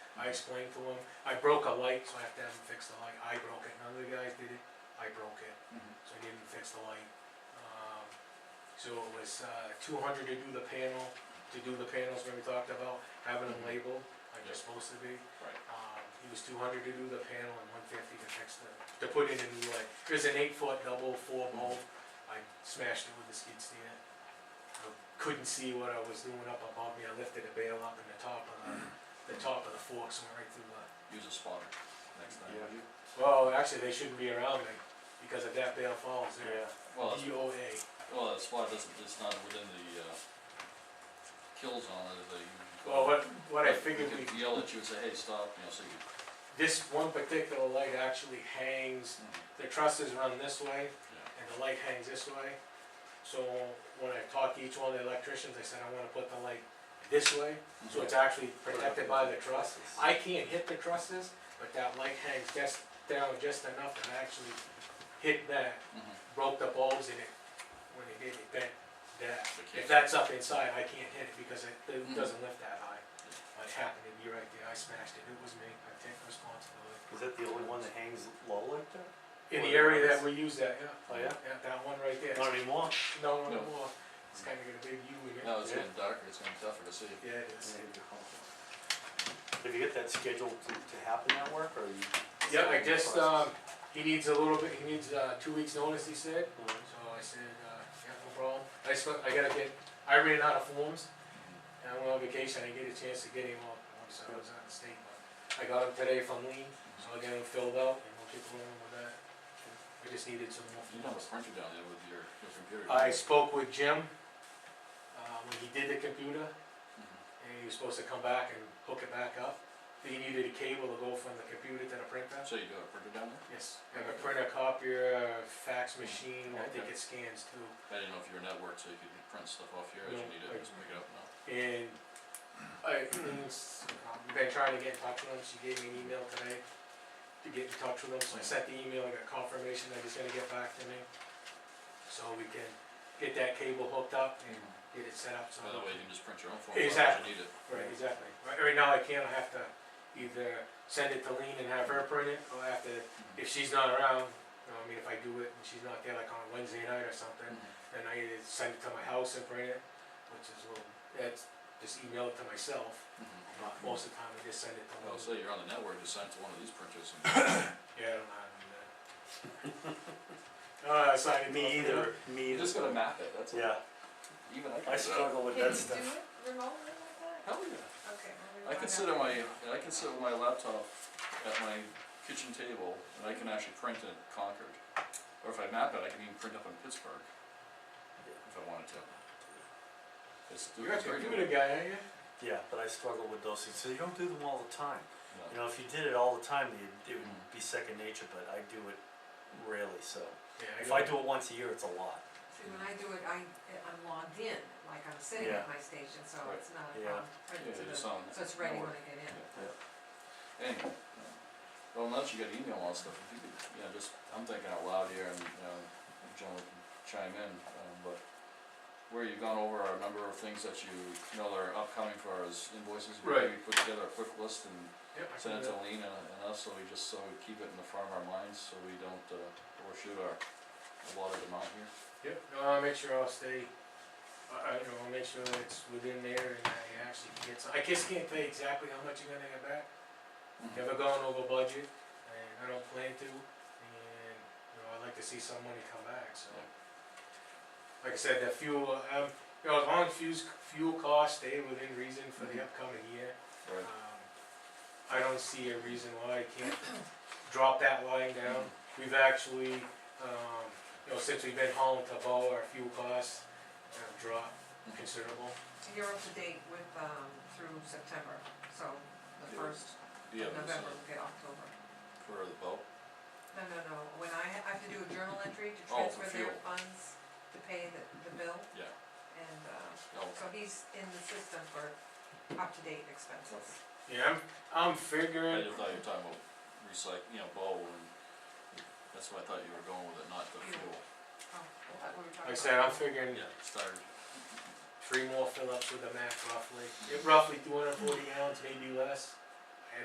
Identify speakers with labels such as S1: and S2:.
S1: I explained to him, I broke a light, so I have to have him fix the light, I broke it, none of the guys did it, I broke it,
S2: Mhm.
S1: so I gave him to fix the light. Um, So it was, uh, two hundred to do the panel, to do the panels when we talked about, having them
S2: Mhm.
S1: labeled, like they're supposed to be.
S2: Right.
S1: Um, he was two hundred to do the panel and one fifty to fix the, to put in a new light. There's an eight foot double four
S2: Mm-hmm.
S1: bolt, I smashed it with a skid steer. I Couldn't see what I was doing up above me, I lifted a bale up and the top of the, the top of the forks went right through the.
S2: Use a spotter next time.
S3: Yeah.
S1: Well, actually, they shouldn't be around me, because if that bale falls, they're
S2: Well, it's-
S1: DOA.
S2: well, the spotter doesn't, it's not within the, uh, kill zone, uh, as they.
S1: Well, what, what I figured we
S2: You could yell at you and say, hey, stop, you know, so you.
S1: This one particular light actually hangs, the trusses run this way,
S2: Yeah.
S1: and the light hangs this way. So when I talked to each one of the electricians, I said, I wanna put the light this way, so it's actually protected by the truss. I can't hit the trusses, but that light hangs just down just enough that I actually hit that,
S2: Mhm.
S1: broke the bulbs in it. When it did, it bent that.
S2: So you
S1: If
S2: can't-
S1: that's up inside, I can't hit it because it it
S2: Mhm.
S1: doesn't lift that high. But It happened to be right there, I smashed it, it was me, I take responsibility.
S3: Is that the only one that hangs low like that?
S1: In the
S3: Or-
S1: area that we use that, yeah.
S3: Oh, yeah?
S1: Yeah, that one right there.
S3: Not anymore?
S1: No, no
S2: No.
S1: more, it's kinda got a big U in it.
S2: No, it's getting darker, it's getting tougher to see.
S1: Yeah, it is.
S3: Did you get that scheduled to, to happen that work, or you?
S1: Yeah, I just, um, he needs a little bit, he needs, uh, two weeks' notice, he said,
S3: Mhm.
S1: so I said, uh, yeah, no problem. I just, I gotta get, I ran out of forms, and I went on vacation, I didn't get a chance to get him all, at once I was out of state, but I got him today from Lean, so I got him filled out, and we'll keep rolling with that. We just needed some more.
S2: You don't have a printer down there with your, your computer. do you?
S1: I spoke with Jim, uh, when he did the computer,
S2: Mhm.
S1: and he was supposed to come back and hook it back up. He needed a cable to go from the computer to the printer.
S2: So you do have a printer down there?
S1: Yes, I have a printer, copier, fax machine, I think it
S2: Okay.
S1: scans too.
S2: I didn't know if you were networked, so you could print stuff off here as you
S1: No,
S2: need
S1: I-
S2: it, just pick it up now.
S1: And I, it's, um, been trying to get in touch with him, she gave me an email today to get in touch with him, so I sent the email, I got confirmation that he's gonna get back to me. So we can get that cable hooked up and get it set up so.
S2: By the way, you can just print your own form out as
S1: Exactly.
S2: you need it.
S1: Right, exactly. Right, right now I can't, I have to either send it to Lean and have her print it, or I have to, if she's not around, you know, I mean, if I do it and she's not there, like on a Wednesday night or something,
S2: Mhm.
S1: then I either send it to my house and print it, which is a little, that's, just email it to myself,
S2: Mhm.
S1: but most of the time I just send it to
S2: I'll
S1: Lean.
S2: say you're on the network, just send it to one of these printers and.
S1: Yeah, I don't know how to do that. Uh, it's not.
S3: Me either,
S2: You
S3: me either.
S2: just gotta map it, that's all.
S3: Yeah,
S2: Even I can. do
S3: I
S2: that.
S3: struggle with
S4: Can
S3: that
S4: you do
S3: stuff.
S4: it remotely like that?
S2: Hell yeah.
S4: Okay. maybe
S2: I
S4: we'll
S2: can
S4: find
S2: sit
S4: out.
S2: on my, I can sit with my laptop at my kitchen table and I can actually print in Concord. Or if I map it, I can even print up in Pittsburgh. If I wanted to. It's.
S1: You're a
S2: it's very
S1: computer guy, aren't you?
S3: Yeah, but I struggle with those things, so you don't do them all the time.
S2: doable.
S3: You
S2: Yeah.
S3: know, if you did it all the time, it, it would be second nature, but I do it rarely, so.
S1: Yeah.
S3: If I do it once a year, it's a lot.
S4: See, when I do it, I, I'm logged in, like I'm sitting
S3: Yeah.
S4: at my station, so
S2: Right.
S4: it's not a
S3: Yeah.
S4: problem. Print
S2: Yeah,
S4: to
S2: just
S4: the-
S2: on
S4: So it's ready when
S2: network.
S4: I get in.
S2: Yeah. Anyway, yeah. well, now that you got email and all that stuff, if you could, you know, just, I'm thinking out loud here and, you know, John can chime in, um, but where you've gone over a number of things that you know that are upcoming for as invoices,
S1: Right.
S2: maybe put together a quick list and
S1: Yep, I can
S2: send
S1: do
S2: it to
S1: that.
S2: Lean and, and us, so we just, so we keep it in the front of our minds, so we don't, uh, overshoot our allotted amount here.
S1: Yep, no, I'll make sure I'll stay, I, I, you know, I'll make sure that it's within there and I actually get some, I just can't tell you exactly how much you're gonna get back. Never gone over budget, and I don't plan to, and, you know, I'd like to see some money come back, so. Like I said, that fuel, um, you know, as long as fuels, fuel costs stay within reason for the
S2: Mhm.
S1: upcoming year, um,
S2: Right.
S1: I don't see a reason why I can't drop that line down. We've actually, um, you know, since we've been hauling to Bow, our fuel costs have dropped considerable.
S4: So you're up to date with, um, through September, so the
S2: Yeah.
S4: first
S2: Do you
S4: of
S2: have this, uh,
S4: November, we'll get October.
S2: for the boat?
S4: No, no, no, when I, ha- I have to do a journal entry to
S2: Oh, for
S4: transfer their
S2: fuel.
S4: funds to pay the, the bill,
S2: Yeah, Oh,
S4: and, uh,
S2: no,
S4: so he's in the system for up-to-date expenses.
S1: Yeah, I'm, I'm
S2: I
S1: figuring,
S2: just thought you were talking about recyc, you know, bowl and, that's why I thought you were going with it, not the fuel.
S4: Oh, I thought we were talking
S1: like I said, I'm
S4: about-
S1: figuring
S2: Yeah, started.
S1: three more fill-ups with a Mack roughly. Yeah, Roughly two hundred and forty gallons, maybe less.